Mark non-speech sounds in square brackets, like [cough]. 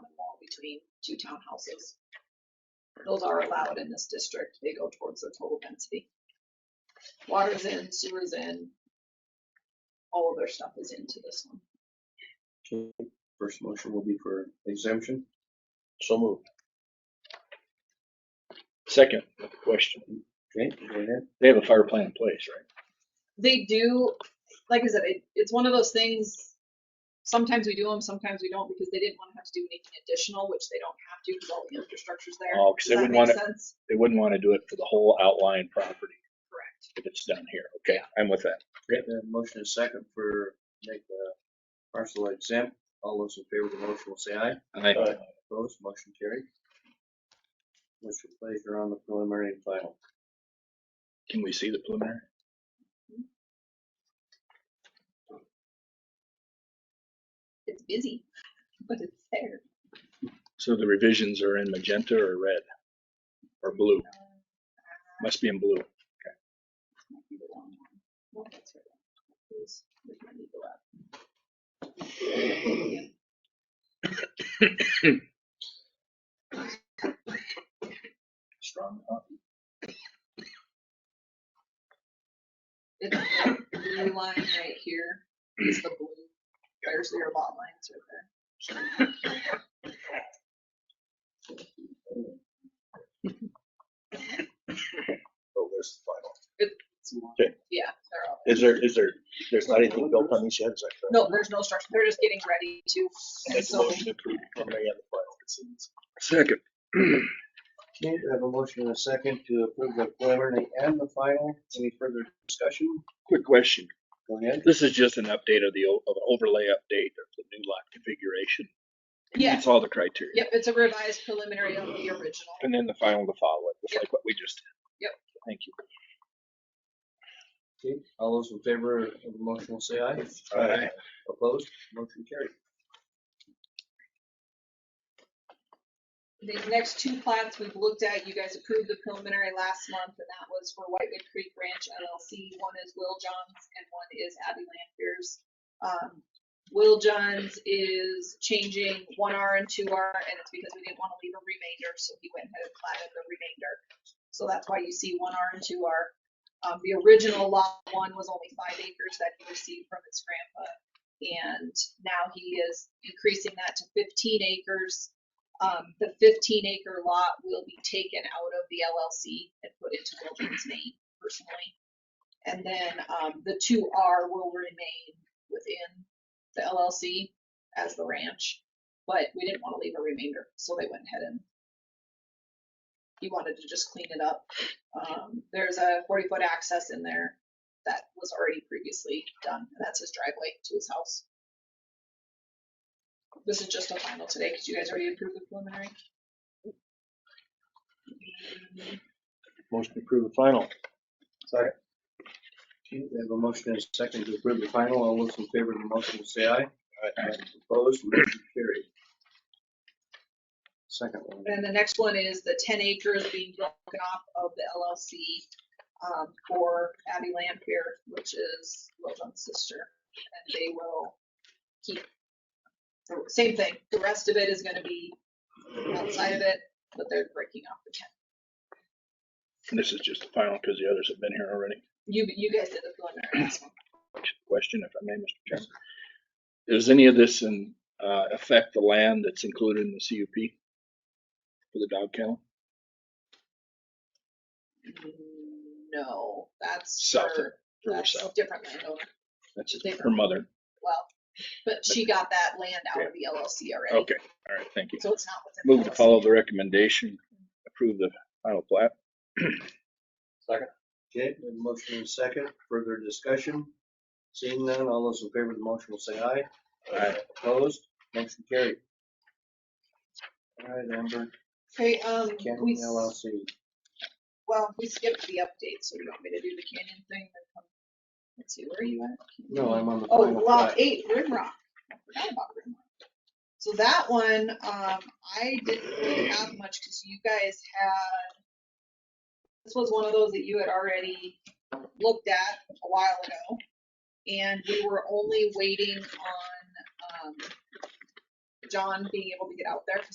between two townhouses. Those are allowed in this district. They go towards the total density. Water's in, sewer's in. All of their stuff is into this one. Okay, first motion will be for exemption. So moved. Second question, Okay, go ahead. they have a fire plan in place, right? They do, like I said, it, it's one of those things, sometimes we do them, sometimes we don't, because they didn't want to have to do anything additional, which they don't have to, because all the infrastructure's there. Oh, 'cause Does they that wouldn't make want to, sense? they wouldn't want to do it for the whole outlying property Correct. if it's done here. Okay, I'm with that. Okay, the motion is second for make the parcel exempt. All those in favor of the motion will say aye. I, Opposed, motion carried. What's your pleasure on the preliminary and final? can we see the preliminary? It's busy, [laughs] but it's there. So the revisions are in magenta or red? Or blue? Must be in blue. Might be the wrong one. No, that's right. Please, we might need to go up. Strong copy. It's the blue line right here. It's the blue. There's their lot lines right there. Oh, there's the final. Yeah, they're all. Is there, is there, there's not anything built on these yet, is that correct? No, there's no structure. They're just getting ready to. I Make a So motion to approve preliminary and the final proceedings. Second. Okay, we have a motion and a second to approve the preliminary and the final. Any further discussion? Quick question. Go ahead. This is just an update of the, o- of overlay update of the new lot configuration. Yeah. It's all the criteria. Yep, it's a revised preliminary of the original. And then the final to follow it, just Yep. like what we just did. Yep. Thank you. Okay, all those in favor of the motion will say aye. Aye. Opposed, motion carried. These next two plats we've looked at, you guys approved the preliminary last month, and that was for Whitewood Creek Ranch LLC. One is Will Johns and one is Abby Lanfear's. Um, Will Johns is changing one R and two R, and it's because we didn't want to leave a remainder, so he went ahead and platted the remainder. So that's why you see one R and two R. Um, the original lot one was only five acres that he received from his grandpa. And now he is increasing that to fifteen acres um, the fifteen acre lot will be taken out of the LLC and put into Wilton's name personally. And then, um, the two R will remain within the LLC as the ranch, but we didn't want to leave a remainder, so they went ahead and he wanted to just clean it up. Um, there's a forty foot access in there that was already previously done, and that's his driveway to his house. This is just a final today, because you guys already approved the preliminary. Motion to approve the final. Okay, we have a motion and a second to approve the final. All those in favor of the motion will say aye. Aye. Opposed, motion carried. Second one. And the next one is the ten acres being broken off of the LLC um, for Abby Lampier, which is Wilton's sister. And they will keep, the same thing, the rest of it is gonna be outside of it, but they're breaking off the ten. This is just the final because the others have been here already. You, you guys did the preliminary last one. question, if I may, Mr. Chairman. Does any of this in, uh, affect the land that's included in the CUP for the dog kennel? No, that's Mm, South her, For that's herself, different landowner, that's it, her mother. well, but she got that land out of the LLC already, Okay, all right, thank you. so it's not within. the Move to LLC. follow the recommendation, approve the final plat. Okay, we have a motion and a second. Further discussion? Seeing none, all those in favor of the motion will say aye. Aye. Opposed, motion carried. All right, Amber, Okay, um, we, Canyon s- LLC. well, we skipped the update, so you want me to do the canyon thing? then come- Let's see, where are you at? No, I'm on the Oh, final lot plat. eight, Rimrock. I forgot about Rimrock. So that one, um, I didn't really have much because you guys had, this was one of those that you had already looked at a while ago. And we were only waiting on, um, John being able to get out there because